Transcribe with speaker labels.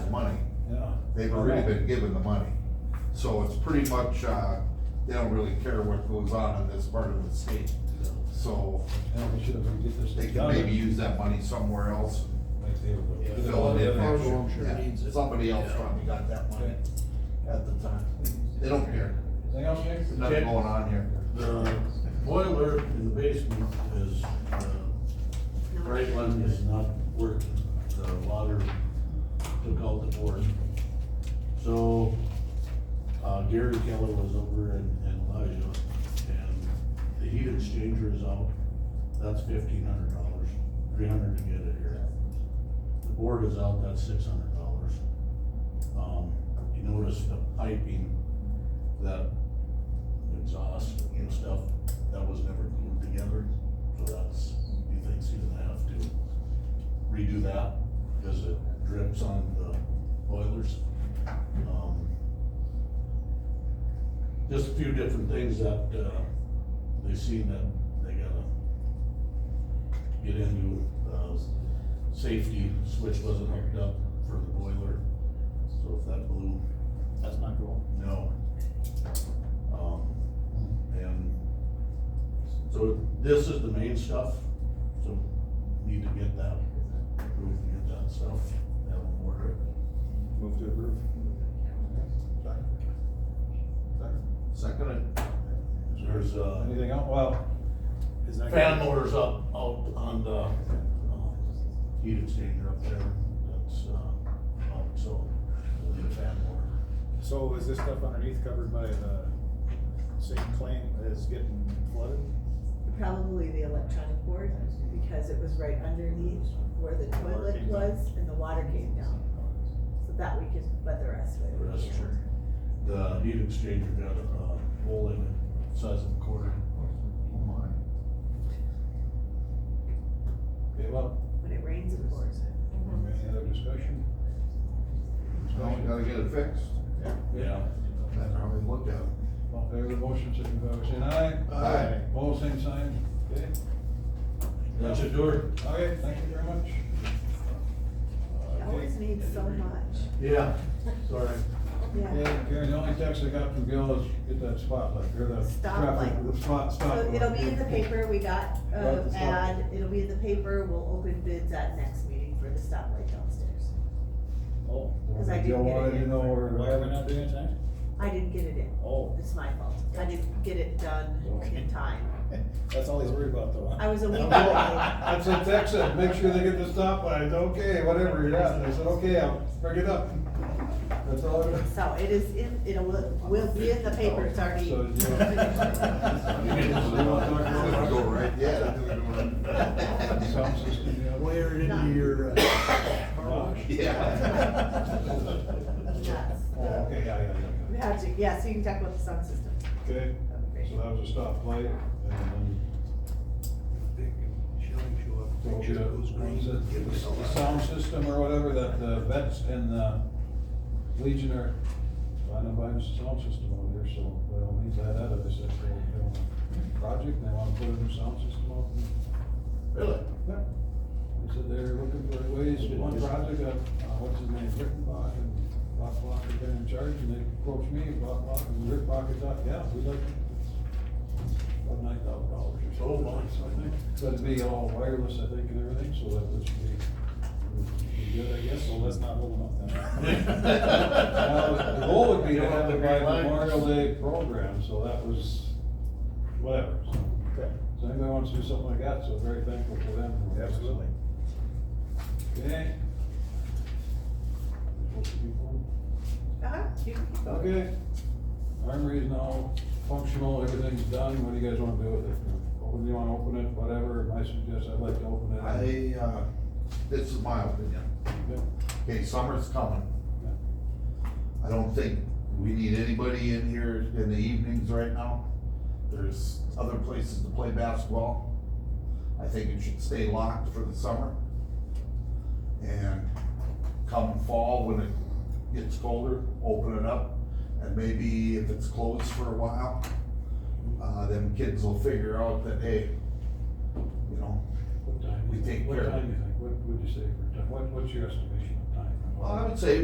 Speaker 1: money.
Speaker 2: Yeah.
Speaker 1: They've already been given the money. So it's pretty much, uh, they don't really care what goes on in this part of the state. So
Speaker 2: Yeah, we should have, we get this.
Speaker 1: they can
Speaker 2: done.
Speaker 1: maybe use that money somewhere else.
Speaker 2: Like they would.
Speaker 3: Yeah.
Speaker 1: Fill it in next year.
Speaker 4: Fargo, I'm sure
Speaker 1: Yeah.
Speaker 4: needs it.
Speaker 1: Somebody else probably got that money at the time. They don't care.
Speaker 2: Anything else, Nick?
Speaker 1: There's nothing going on here.
Speaker 3: The boiler in the basement is, uh, right one is not working, the water took out the board. So, uh, Gary Keller was over and, and Elijah, and the heat exchanger is out, that's fifteen hundred dollars, three hundred to get it here. The board is out, that's six hundred dollars. Um, you notice the piping that exhaust and stuff, that was never glued together, so that's, he thinks he's gonna have to redo that, because it drips on the boilers. Um, Just a few different things that, uh, they seen that they gotta get into, uh, safety switch wasn't hooked up for the boiler, so if that blew,
Speaker 5: That's not cool.
Speaker 3: no. Um, and so this is the main stuff, so need to get that, we can get that stuff, that will order.
Speaker 2: Move to approve.
Speaker 1: Second,
Speaker 3: There's uh
Speaker 2: Anything else? Well. Is that?
Speaker 3: fan motors up, out on the, uh, heat exchanger up there, that's, uh, out, so we'll need a fan motor.
Speaker 6: So is this stuff underneath covered by the same claim as getting flooded?
Speaker 7: Probably the electronic board, because it was right underneath where the toilet was and the water came down. So that we could, but the rest of it.
Speaker 3: The rest, sure. The heat exchanger got a hole in it, size of a quarter.
Speaker 1: oh my.
Speaker 2: Okay, well,
Speaker 7: When it rains, it pours.
Speaker 2: any other discussion?
Speaker 1: Well, we gotta get it fixed.
Speaker 3: Yeah.
Speaker 1: That's how we look at it.
Speaker 2: All in favor of the motion, signify by saying aye.
Speaker 1: Aye.
Speaker 2: All same sign. Okay.
Speaker 3: That should do it.
Speaker 2: Okay, thank you very much.
Speaker 7: It always needs so much.
Speaker 3: Yeah, sorry.
Speaker 7: Yeah.
Speaker 2: Yeah, Karen, the only text I got from Gil is get that spotlight, or the traffic,
Speaker 7: Stoplight.
Speaker 2: the spot, stop.
Speaker 7: So it'll be in the
Speaker 2: light.
Speaker 7: paper, we got,
Speaker 2: Got
Speaker 7: uh,
Speaker 2: the stop.
Speaker 7: ad, it'll be in the paper, we'll open bids at next meeting for the stoplight downstairs.
Speaker 6: Oh,
Speaker 7: Because I
Speaker 2: Gil
Speaker 7: didn't get it
Speaker 2: wanted to know
Speaker 7: in.
Speaker 2: where.
Speaker 6: why are we not doing it tonight?
Speaker 7: I didn't get it in,
Speaker 6: Oh,
Speaker 7: it's my fault, I didn't get it done in time.
Speaker 6: that's all he's worried about though.
Speaker 7: I was a week away.
Speaker 2: That's what Tech said, make sure they get the stop lights, okay, whatever, yeah, and I said, okay, I'll bring it up. That's all. I-
Speaker 7: So it is in, it'll, will be in the paper, it's already.
Speaker 2: So, you
Speaker 1: Didn't Go right, yeah.
Speaker 2: Sound system, yeah.
Speaker 3: Where
Speaker 7: into
Speaker 3: your
Speaker 2: car wash.
Speaker 7: That's
Speaker 2: Oh, okay, yeah, yeah,
Speaker 7: the
Speaker 2: yeah, yeah.
Speaker 7: magic, yeah, so you can talk about the sound system.
Speaker 2: Okay,
Speaker 7: That'd be
Speaker 2: so
Speaker 7: great.
Speaker 2: that was a stop light, and then. What was it? The sound system or whatever, that the vets and the Legion are trying to buy a sound system over there, so they all need that out of this, that's their their project, and they wanna put a new sound system up.
Speaker 3: Really?
Speaker 2: Yeah. They said they're looking for ways, one project, uh, uh, what's his name, Rick Bach and Bob Block have been in charge, and they approached me, Bob Block and Rick Bach had thought, yeah, we'd like to. About nine thousand dollars or so,
Speaker 3: Oh,
Speaker 2: so
Speaker 3: my.
Speaker 2: I think, that'd be all wireless, I think, and everything, so that would be, would be good, I guess,
Speaker 6: So
Speaker 2: so that's
Speaker 6: let's not hold them up then.
Speaker 2: well, The goal would be to have the
Speaker 3: Green lights.
Speaker 2: Memorial Day program, so that was, whatever.
Speaker 6: Okay,
Speaker 2: So anybody wants to do something like that, so very thankful for them.
Speaker 6: Absolutely.
Speaker 2: Okay.
Speaker 7: Uh-huh, you can keep going.
Speaker 2: Okay. Armory is now functional, everything's done, what do you guys wanna do with it? Open, you wanna open it, whatever, I suggest, I'd like to open it.
Speaker 1: I, uh, this is my opinion.
Speaker 2: Yeah.
Speaker 1: Okay, summer's coming. I don't think we need anybody in here in the evenings right now. There's other places to play basketball. I think it should stay locked for the summer. And come fall, when it gets colder, open it up. And maybe if it's closed for a while, uh, them kids will figure out that, hey, you know,
Speaker 2: What time?
Speaker 1: We take
Speaker 2: What
Speaker 1: care of it.
Speaker 2: time do you think, what would you say for time, what, what's your estimation of time?
Speaker 1: well, I would say